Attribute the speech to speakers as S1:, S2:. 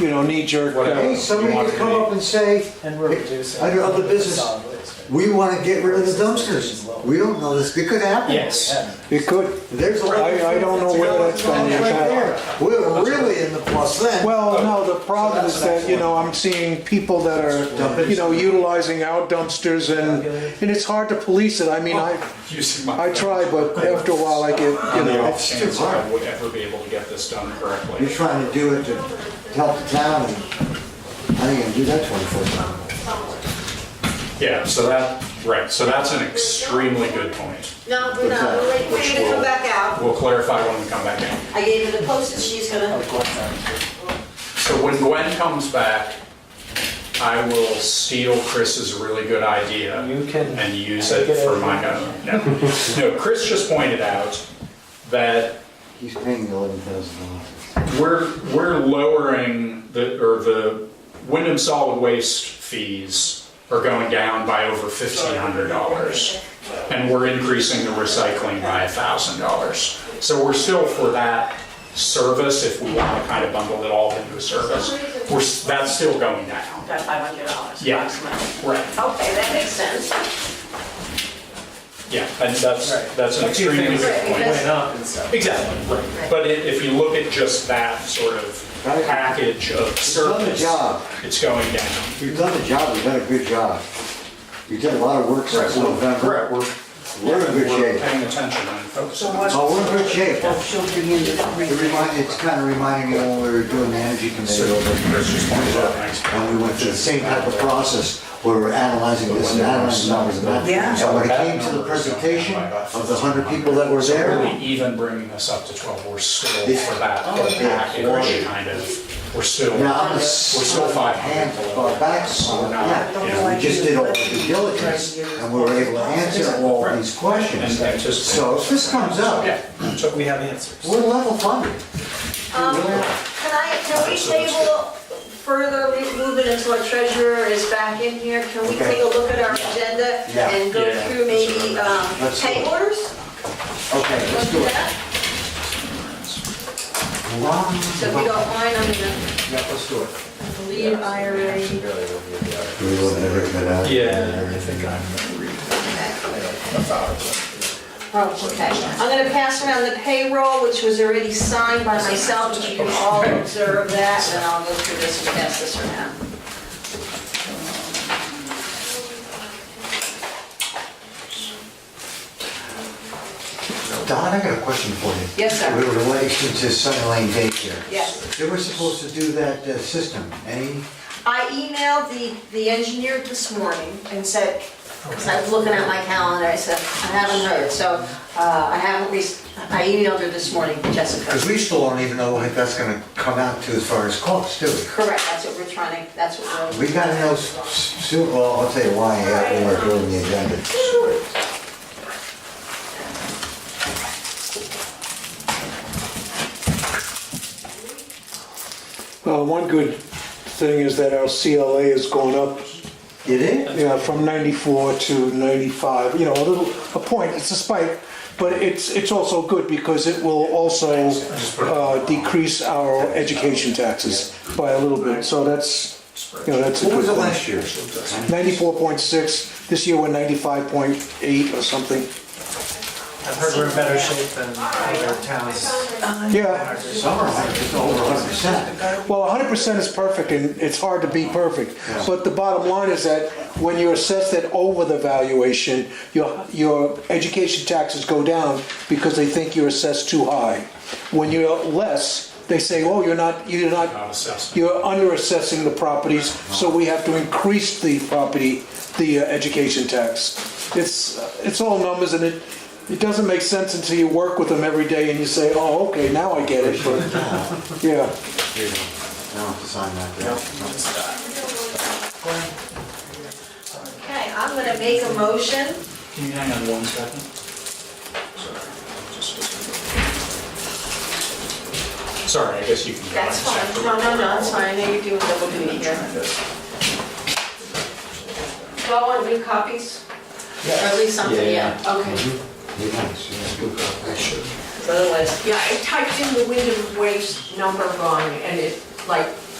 S1: you know, knee-jerk,
S2: Whatever.
S1: uh,
S3: Hey, somebody
S2: You want
S3: could come
S2: to be-
S3: up and say,
S4: And we're reducing.
S3: I don't know the business.
S4: solid waste.
S3: we want to get rid of the dumpsters. We don't know this, it could happen.
S4: Yeah.
S1: it could,
S3: There's a lot of
S1: I- I don't know where that's gonna
S3: Right
S1: impact.
S3: there. We're really in the plus then.
S1: Well, no, the problem is that, you know, I'm seeing people that are, you know, utilizing our dumpsters and, and it's hard to police it. I mean, I,
S2: Using my.
S1: I try, but after a while I get, you
S2: On the
S1: know,
S2: off chance I would ever be able to get this done
S3: You're
S2: correctly.
S3: trying to do it to help the town, and I ain't gonna do that twenty-four times.
S2: Yeah, so that, right, so that's an extremely good point.
S5: No, we're not, we're waiting for you to come back out.
S2: We'll clarify when we come back in.
S5: I gave her the postage, she's gonna,
S2: So when Gwen comes back, I will steal Chris's really good idea
S4: You can-
S2: and use it for my own. No, No, Chris just pointed out that
S3: He's paying the eleven thousand dollars.
S2: we're, we're lowering the, or the Wyndham solid waste fees are going down by over fifteen hundred dollars. And we're increasing the recycling by a thousand dollars. So we're still for that service, if we want to kind of bundle it all into a service, we're, s- that's still going down.
S5: got five hundred dollars.
S2: Yeah. Right.
S5: Okay, that makes sense.
S2: Yeah, and that's,
S4: Right.
S2: that's an
S4: A few
S2: extremely
S4: things
S2: good point.
S4: Went up and
S2: uh,
S4: stuff.
S2: Exactly, right. But i- if you look at just that sort of
S3: Right.
S2: package of
S3: done the
S2: service,
S3: job.
S2: it's going down.
S3: You've done the job, you've done a good job. You've done a lot of work since November.
S2: Correct, we're,
S3: We're in good
S2: we're
S3: shape.
S2: paying attention and focusing.
S3: Oh, we're in good shape. It remind, it's kind of reminding me when we were doing the energy committee over,
S2: Chris just pointed out, thanks.
S3: and we went through the same type of process, where we're analyzing this and analyzing numbers and that.
S5: Yeah.
S3: So when it came to the presentation of the hundred people that were there,
S2: Really even bringing this up to twelve, we're still
S3: Yeah.
S2: for that
S3: Oh, yeah.
S2: package, kind of, we're still,
S3: Now, I'm a
S2: we're still five
S3: hand
S2: hundred
S3: far
S2: below.
S3: back,
S2: So
S3: so
S2: we're not,
S3: yeah,
S2: you know,
S3: we just did all the due diligence, and we were able to answer all these questions.
S2: And anticipate.
S3: So if this comes up,
S2: Yeah, so
S4: We have answers.
S3: we're level funded.
S5: Um, Can I, can we table further movement until our treasurer is back in here? Can we
S3: Okay.
S5: take a look at our agenda
S3: Yeah.
S5: and go
S2: Yeah.
S5: through maybe um,
S3: Let's do
S5: pay
S3: it.
S5: orders?
S3: Okay,
S5: Let's
S3: let's
S5: do
S3: do it.
S5: that, so if you
S3: Yeah,
S5: don't mind, I'm gonna
S3: let's do it.
S5: leave IRA.
S3: We would never get out.
S2: Yeah, I think I'm,
S5: Oh, okay. I'm gonna pass around the payroll, which was already signed by myself, which you can all observe that, and then I'll go through this and pass this around.
S3: Don, I got a question for you.
S5: Yes, sir.
S3: With relation to Sunny Lane daycare.
S5: Yes.
S3: They were supposed to do that uh, system, any?
S5: I emailed the, the engineer this morning and said, because I was looking at my calendar, I said, I haven't heard, so uh, I haven't, re- I emailed her this morning, Jessica.
S3: Because we still don't even know what that's gonna come out to as far as costs, do we?
S5: Correct, that's what we're trying to, that's what we're.
S3: We gotta know s- s- soon, well, I'll tell you why, uh, when we're doing the agenda.
S1: uh, one good thing is that our CLA has gone up,
S3: You did?
S1: you know, from 94 to 95, you know, a little, a point, it's a spike, but it's, it's also good because it will also uh, decrease our education taxes by a little bit, so that's, you know, that's a good thing.
S3: What was it last year?
S1: 94.6, this year we're 95.8 or something.
S4: I've heard we're in better shape than other towns.
S1: Yeah,
S3: Summer, like, it's over hundred percent.
S1: well, 100% is perfect, and it's hard to be perfect. But the bottom line is that when you're assessed at over the valuation, your, your education taxes go down because they think you're assessed too high. When you're less, they say, oh, you're not, you're
S2: Not assessed.
S1: You're under assessing the properties, so we have to increase the property, the uh, education tax. It's, uh, it's all numbers and it, it doesn't make sense until you work with them every day and you say, oh, okay, now I get it, but, yeah.
S3: Now, sign that, yeah.
S5: Okay, I'm gonna make a motion.
S2: can you hang on one second? Sorry, just- Sorry, I guess you can. go
S5: That's
S2: on.
S5: fine, no, no, no, it's fine, I know you're doing double duty here. Do I want new copies? Or at least something, yeah, okay.
S3: Be nice, yeah, good call. That should-
S5: Otherwise,
S6: Yeah, I typed in the Wyndham Waste number wrong, and it, like,